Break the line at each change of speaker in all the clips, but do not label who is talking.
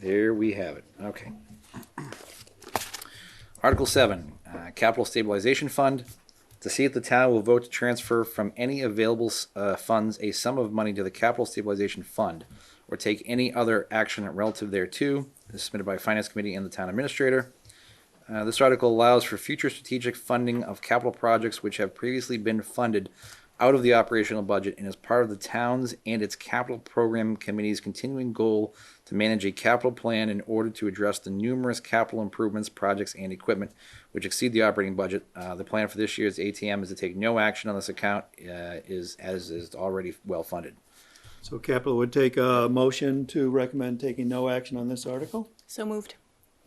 There we have it. Okay. Article seven, uh, capital stabilization fund. To see if the town will vote to transfer from any available uh, funds a sum of money to the capital stabilization fund, or take any other action relative thereto. This is submitted by finance committee and the town administrator. Uh, this article allows for future strategic funding of capital projects which have previously been funded out of the operational budget and is part of the town's and its capital program committee's continuing goal to manage a capital plan in order to address the numerous capital improvements, projects, and equipment which exceed the operating budget. Uh, the plan for this year's ATM is to take no action on this account uh, is as is already well funded.
So capital would take a motion to recommend taking no action on this article.
So moved.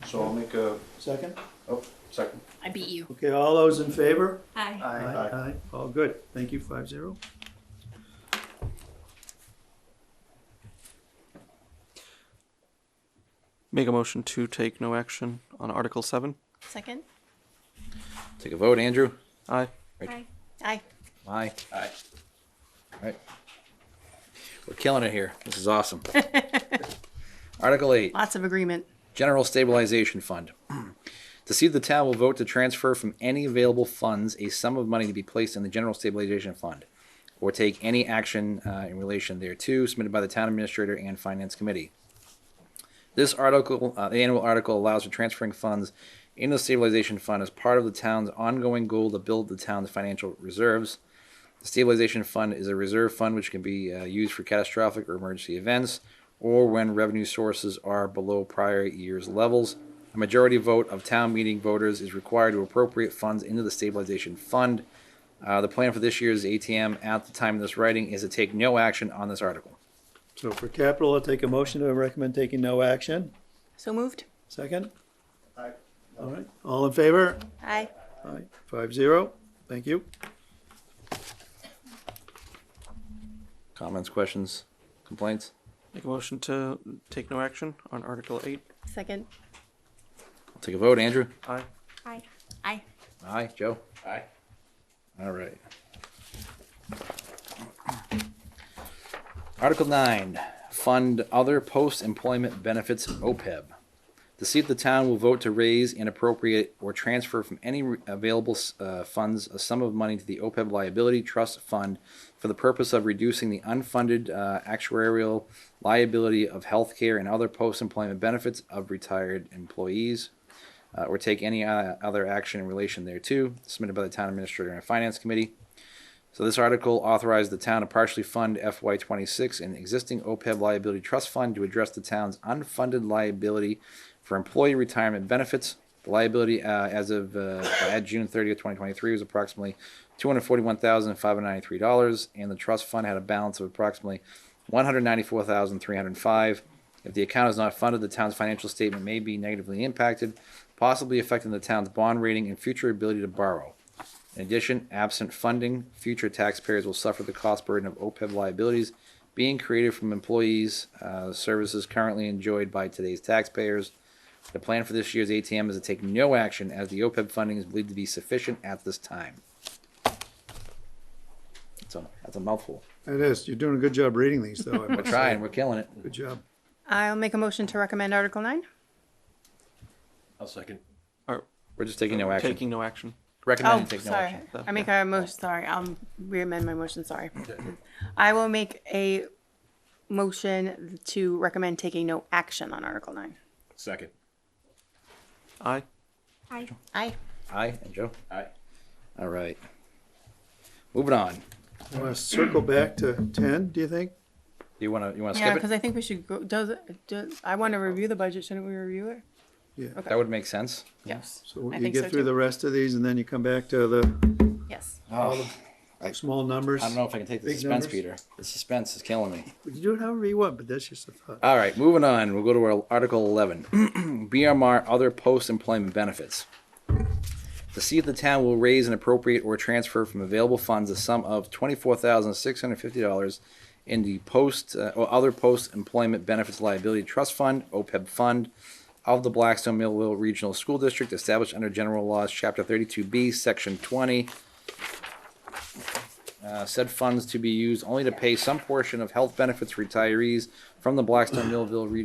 So I'll make a,
Second?
oh, second.
I beat you.
Okay, all those in favor?
Aye.
Aye.
Aye. All good. Thank you, five zero.
Make a motion to take no action on Article 7.
Second?
Take a vote, Andrew.
Aye.
Aye. Aye.
Aye.
Aye.
Right. We're killing it here. This is awesome. Article eight.
Lots of agreement.
General Stabilization Fund. To see if the town will vote to transfer from any available funds a sum of money to be placed in the General Stabilization Fund, or take any action uh, in relation thereto submitted by the town administrator and finance committee. This article, uh, the annual article allows for transferring funds in the stabilization fund as part of the town's ongoing goal to build the town's financial reserves. The stabilization fund is a reserve fund which can be uh, used for catastrophic or emergency events or when revenue sources are below prior year's levels. A majority vote of town meeting voters is required to appropriate funds into the stabilization fund. Uh, the plan for this year's ATM at the time of this writing is to take no action on this article.
So for capital, I'll take a motion to recommend taking no action.
So moved.
Second?
Aye.
All right, all in favor?
Aye.
Aye, five zero. Thank you.
Comments, questions, complaints?
Make a motion to take no action on Article 8.
Second?
I'll take a vote. Andrew?
Aye.
Aye. Aye.
Aye. Joe?
Aye.
All right. Article nine, fund other post-employment benefits, OPEB. To see if the town will vote to raise and appropriate or transfer from any re- available uh, funds a sum of money to the OPEB liability trust fund for the purpose of reducing the unfunded uh, actuarial liability of healthcare and other post-employment benefits of retired employees uh, or take any uh, other action in relation thereto, submitted by the town administrator and finance committee. So this article authorized the town to partially fund FY twenty-six an existing OPEB liability trust fund to address the town's unfunded liability for employee retirement benefits. The liability uh, as of uh, at June thirtieth, twenty twenty-three, was approximately two hundred forty-one thousand five hundred ninety-three dollars, and the trust fund had a balance of approximately one hundred ninety-four thousand three hundred five. If the account is not funded, the town's financial statement may be negatively impacted, possibly affecting the town's bond rating and future ability to borrow. In addition, absent funding, future taxpayers will suffer the cost burden of OPEB liabilities being created from employees, uh, services currently enjoyed by today's taxpayers. The plan for this year's ATM is to take no action as the OPEB funding is believed to be sufficient at this time. So, that's a mouthful.
It is, you're doing a good job reading these, though. I
We're
must say.
trying, we're killing it.
Good job.
I'll make a motion to recommend Article nine.
I'll second.
Or
We're just taking no action.
taking no action.
Recommend
Oh,
take no
sorry.
action.
though.
I make a motion, sorry. I'll amend my motion, sorry. I will make a motion to recommend taking no action on Article nine.
Second.
Aye.
Aye. Aye.
Aye, and Joe?
Aye.
All right. Moving on.
Want to circle back to ten, do you think?
You wanna, you wanna
Yeah,
skip
because
it?
I think we should go, does, it- does, I want to review the budget. Shouldn't we review it?
That would make sense.
Yes.
So
I
you
think so,
get through
too.
the rest of these and then you come back to the
Yes.
small numbers.
I don't know if I can take the
Big
suspense,
numbers.
Peter. The suspense is killing me.
You can do it however you want, but that's just a thought.
All right, moving on. We'll go to our Article 11 BMR Other Post Employment Benefits. To see if the town will raise an appropriate or transfer from available funds a sum of $24,650 in the post uh, or other post employment benefits liability trust fund, OPEB fund, of the Blackstone Millville Regional School District established under General Laws, Chapter 32B, Section 20. Uh, said funds to be used only to pay some portion of health benefits for retirees from the Blackstone Millville Regional